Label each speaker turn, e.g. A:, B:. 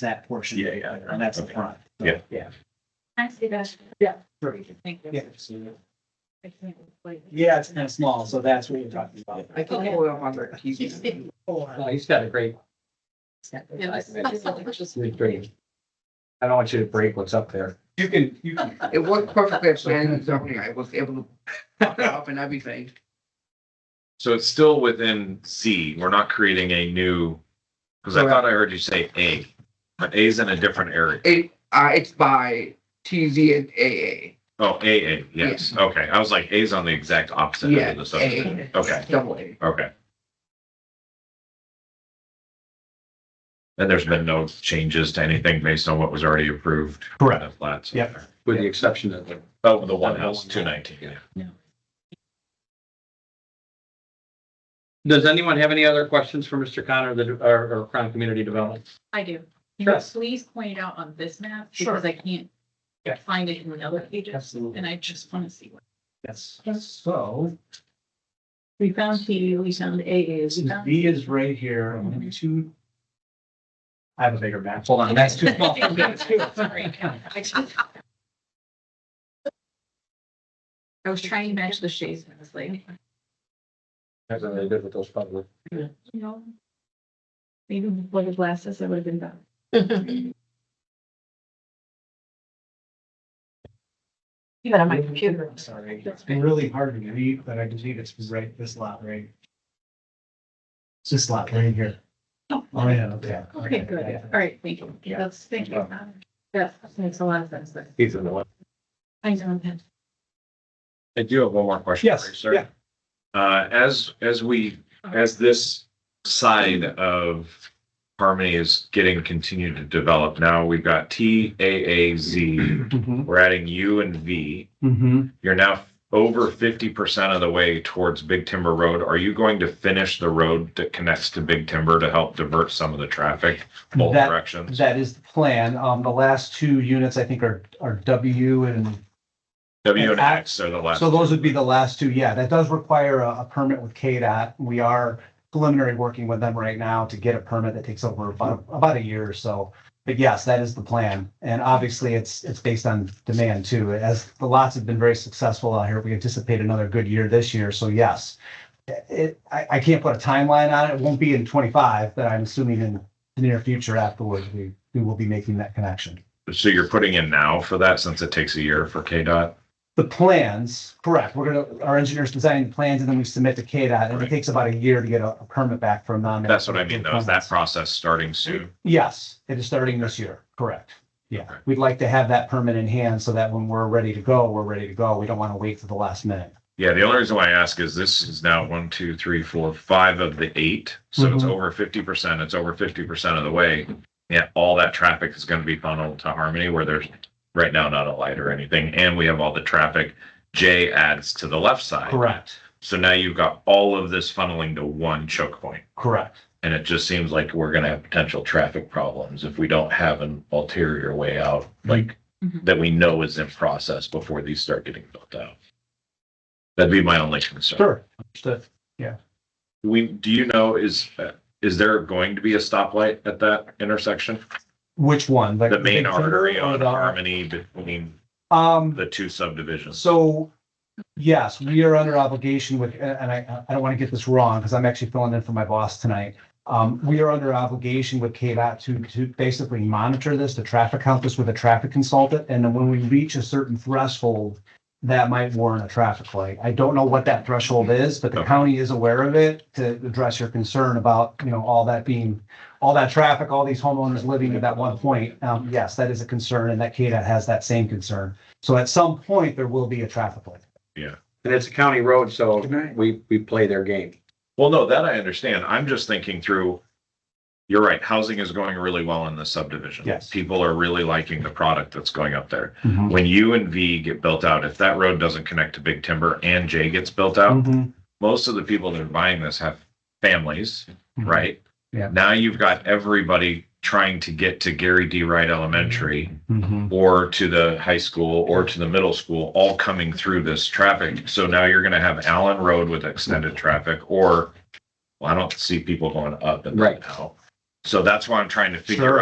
A: that portion.
B: Yeah, yeah, yeah.
A: And that's the
B: Okay.
A: front.
B: Yeah.
A: Yeah.
C: I see that.
A: Sure. Yeah.
C: I can't wait.
A: Yeah, it's kind of small, so that's what you're talking about.
D: I
C: Okay.
D: can oil on it. He's-
E: No, he's got a great. It's really great. I don't want you to break what's up there.
B: You can, you can.
D: It worked perfectly at planning and zoning. I was able to pop it up and everything.
F: So it's still within Z. We're not creating a new, because I thought I heard you say A, but A's in a different area.
D: It, uh, it's by TZ and AA.
F: Oh, AA, yes. Okay. I was like, A's on the exact opposite end
D: Yeah,
F: of the subdivision.
D: AA,
F: Okay,
D: double A.
F: okay. And there's been no changes to anything based on what was already approved.
A: Correct.
F: The flats.
A: Yep.
E: With the exception of the
F: Oh, the one house, two nineteen, yeah.
E: Does anyone have any other questions for Mr. Connor, the, or, or Crown Community Development?
C: I do. Can you
E: Sure.
C: please point it out on this map?
A: Sure.
C: Because I can't
A: Yeah.
C: find it in the other pages,
A: Absolutely.
C: and I just want to see what.
A: Yes. So
C: We found T, we found AA, we found.
A: V is right here and two. I have a bigger map. Hold on, that's
C: that's
A: too
C: too
A: small.
C: small. That's too- sorry. I was trying to match the shades, and I was like,
E: Has anything to do with those public?
C: you know. Maybe before the glasses, I would have been done.
G: Even on my computer.
A: I'm Sorry, it's been really hard to read, but I believe it's right, this lot right. It's this lot right here.
C: Oh.
A: Oh, yeah, okay.
C: Okay, good. All right, thank you. That's, thank you. That makes a lot of sense. but
E: He's in the one.
C: I know that.
F: I do have one more question.
A: Yes,
F: for you, sir.
A: yeah.
F: Uh, as, as we, as this side of Harmony is getting continued to develop, now we've got T, A, A, Z,
A: Mm-hmm.
F: we're adding U and V.
A: Mm-hmm.
F: You're now over fifty percent of the way towards Big Timber Road. Are you going to finish the road that connects to Big Timber to help divert some of the traffic both
A: That-
F: directions?
A: That is the plan. Um, the last two units, I think, are, are W and
F: W and
A: and I-
F: X are the last.
A: So those would be the last two, yeah, that does require a, a permit with KDOT. We are preliminary working with them right now to get a permit that takes over about, about a year or so. But yes, that is the plan, and obviously it's, it's based on demand too, as the lots have been very successful out here, we anticipate another good year this year, so yes. It, I, I can't put a timeline on it, it won't be in twenty-five, but I'm assuming in the near future afterwards, we, we will be making that connection.
F: So you're putting in now for that since it takes a year for KDOT?
A: The plans, correct, we're gonna, our engineers designing the plans and then we submit to KDOT and it
F: Right.
A: takes about a year to get a a permit back from them.
F: That's what I mean though, is that process starting soon?
A: Yes, it is starting this year, correct. Yeah,
F: Okay.
A: we'd like to have that permit in hand so that when we're ready to go, we're ready to go. We don't want to wait for the last minute.
F: Yeah, the only reason why I ask is this is now one, two, three, four, five of the eight. So it's
A: Mhm.
F: over fifty percent. It's over fifty percent of the way. Yeah, all that traffic is gonna be funneled to Harmony where there's right now not a light or anything. And we have all the traffic. J adds to the left side.
A: Correct,
F: So now you've got all of this funneling to one choke point.
A: correct.
F: And it just seems like we're gonna have potential traffic problems if we don't have an ulterior way out, like
C: Mhm.
F: that we know is in process before these start getting built out. That'd be my only concern.
A: Sure, understood.
F: We, do you know, is, uh, is there going to be a stoplight at that intersection?
A: Which one? Like
F: The main
A: big finger
F: artery
A: or
F: on
A: the-
F: Harmony between
A: Um,
F: the two subdivisions?
A: So, yes, we are under obligation with, and I, I don't want to get this wrong because I'm actually filling in for my boss tonight. Um, we are under obligation with KDOT to, to basically monitor this, to traffic count this with a traffic consultant. And then when we reach a certain threshold, that might warrant a traffic light. I don't know what that threshold is, but the
F: Okay.
A: county is aware of it to address your concern about, you know, all that being, all that traffic, all these homeowners living at that one point. Um, yes, that is a concern and that KDOT has that same concern. So at some point, there will be a traffic light.
E: And it's a county road, so
D: Good night.
E: we, we play their game.
F: Well, no, that I understand. I'm just thinking through, you're right, housing is going really well in the subdivision.
A: Yes.
F: People are really liking the product that's going up there. When U and V get built out, if that road doesn't connect to Big Timber and J gets built out,
A: Mhm.
F: most of the people that are buying this have families. right?
A: Mm-hmm. Yeah.
F: Now you've got everybody trying to get to Gary D. Wright Elementary
A: Mhm.
F: or to the high school or to the middle school, all coming through this traffic. So now you're gonna have Allen Road with extended traffic or, well, I don't see people going up and
E: Right.
F: down now. So that's why I'm trying to figure
A: Sure.
F: out.